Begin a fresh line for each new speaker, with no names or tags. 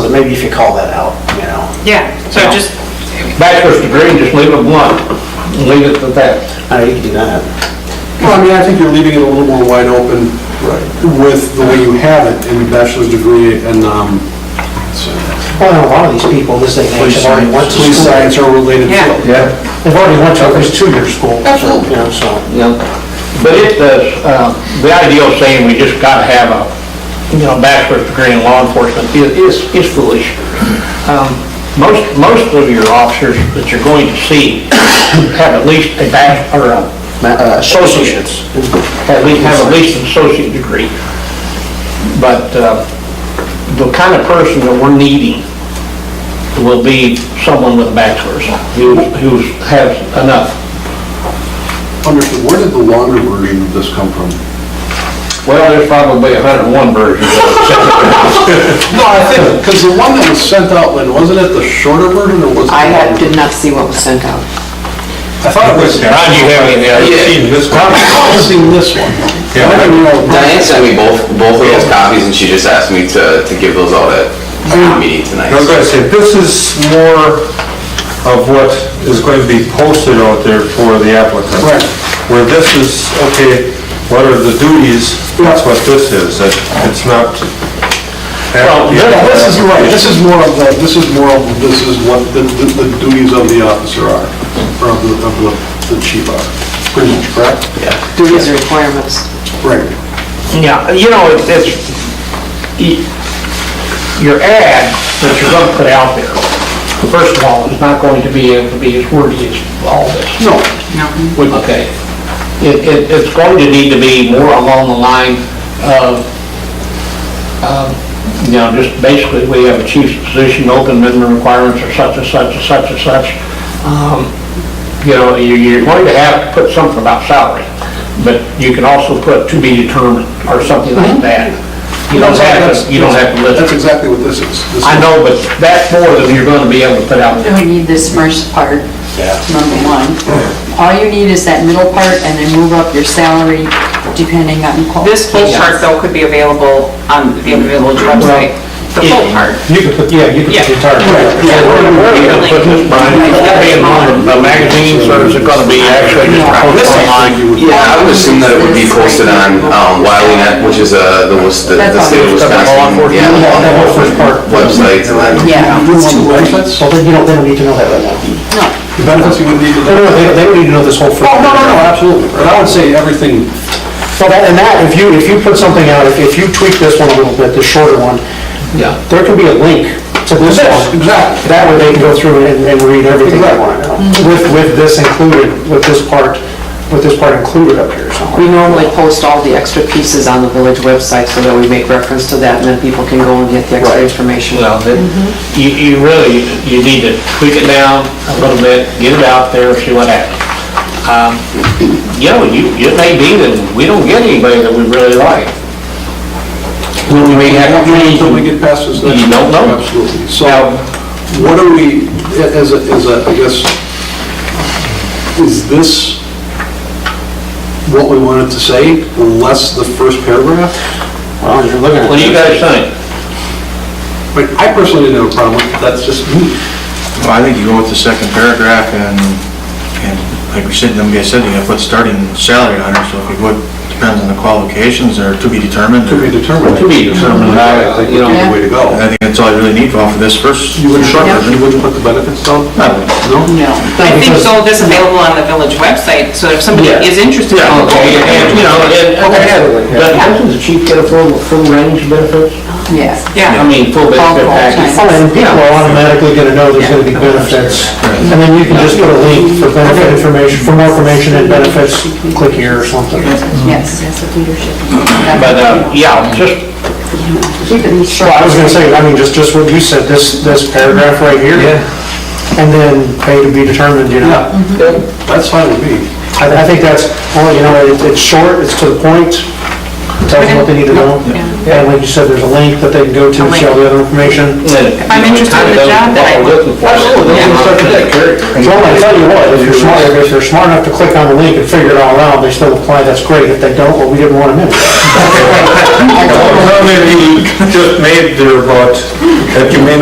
So maybe if you call that out, you know.
Yeah, so
No.
just,
Bachelor's degree, just leave it blunt, leave it at that.
I know Uh, you can do that.
Well, I mean, I think you're leaving it a little more wide open with the way you have it in the bachelor's degree and um,
Well, and a lot of these people, this day and age,
police
have already went to
police
school.
science or related
Yeah.
field.
Yeah.
They've already went to at least two-year school.
Absolutely.
You know, so,
Yeah, but it does, uh, the ideal saying we just gotta have a, you know, bachelor's degree in law enforcement is, is- is foolish. Um, Most, most of your officers that you're going to see have at least a bach, or a
ma- uh,
associates, at least have at least an associate degree. But uh, the kind of person that we're needing will be someone with a bachelor's who's, who's has enough.
Understood. Where did the longer version of this come from?
Well, there's probably a hundred and one versions of it.
No, I think, because the one that was sent out, Lynn, wasn't it the shorter version or was it?
I had, did not see what was sent out.
I thought it was.
Ron, do you have any idea?
I've seen this one.
Yeah.
I don't know.
Diane sent me both, both of those copies, and she just asked me to, to give those out at the meeting tonight.
I was gonna say, this is more of what is going to be posted out there for the applicant.
Right.
Where this is, okay, what are the duties, that's what this is, that it's not.
Well,
Yeah, this is, right, this is more of the, this is more of, this is what the the duties of the officer are, or of the, of the- the chief are. Pretty much, correct?
Duties and requirements.
Right.
Yeah, you know, it's, it's, y- your ad that you're gonna put out there, first of all, is not going to be able to be as worthy as all this.
No,
Okay. It, it, it's going to need to be more along the line of, um, you know, just basically, we have a chief's position, open minimum requirements are such and such and such and such. Um, You know, you, you're going to have to put something about salary, but you can also put to be determined or something like that. You don't have to, you don't have to
that's
list. it.
exactly what this is. This
I
is-
know, but that's more than you're gonna be able to put out.
We need this first part, number one. All you need is that middle part and then move up your salary depending on qualifications.
this whole part though could be available on the village website, the full part.
You could put, yeah, you could
Yeah.
put your target. Yeah, we're we're gonna put this behind, it's gonna be on the magazines, or is it gonna be actually just posted online?
Yeah, I would assume that it would be posted on um, WileyNet, which is uh, the Wis- the the state of
That's all.
Wisconsin. Yeah, the law
That whole first part.
enforcement websites and then.
Yeah,
You want
it's
the
too late.
benefits?
well, then you don't, they don't need to know that right now.
The benefits you would need to...
No, no, they, they don't need to know this whole.
Oh, no, no, no, absolutely. But I would say everything,
So that, and that, if you, if you put something out, if- if you tweak this one a little bit, the shorter one,
Yeah.
there can be a link to this
Yes,
one.
exactly.
That way they can go through and, and read everything they want to know. With, with this included, with this part, with this part included up here
We
somewhere.
normally post all the extra pieces on the village website so that we make reference to that and then people can go and get the extra
Right.
information.
Well, then, you, you really, you need to tweak it down a little bit, get it out there, see what happens. Um, You know, you, it may be that we don't get anybody that we really like. We may have to change.
until we get past this next...
You don't know.
Absolutely. So
Now,
what are we, as a, as a, I guess, is this what we wanted to say, less the first paragraph?
Well, you're looking at.
what do you guys think?
But I personally didn't have a problem with it, that's just me.
Well, I think you go with the second paragraph and, and like we said, them guys said, you gotta put starting salary on it, so if you go, depends on the qualifications or to be determined.
To be determined.
To be determined,
I think would be the way to go.
I think that's all you really need for this first.
You wouldn't, you wouldn't put the benefits down? No?
No.
I think so, this available on the village website, so if somebody
Yeah.
is interested. in
Yeah, okay,
looking at
and,
it,
you know, and, and, does- doesn't the chief get a full, full range benefits?
Yes.
I
Yeah,
mean, full benefit
All
package.
full-time.
Oh, and people are automatically gonna know there's gonna be benefits, and then you can just put a link for benefit information, for more information and benefits, click here or something.
Yes. Yes, of leadership.
But, uh, yeah, just
Keep it
Well, I was gonna say, I mean, just, just what you said, this, this paragraph right here. And then pay to be determined, you know?
Yeah, that's fine with me.
I, I think that's, well, you know, it- it's short, it's to the point, tell them what they need to know.
Yeah.
And like you said, there's a link that they can go to to see all the other information.
If
I'm interested in the job, then I would.
Absolutely,
Yeah.
that's what I'm saying.
Well, I tell you what, if you're smart, if you're smart enough to click on the link and figure it all out, they still apply, that's great. If they don't, well, we didn't want them in.
Well, maybe you just made their vote, that you may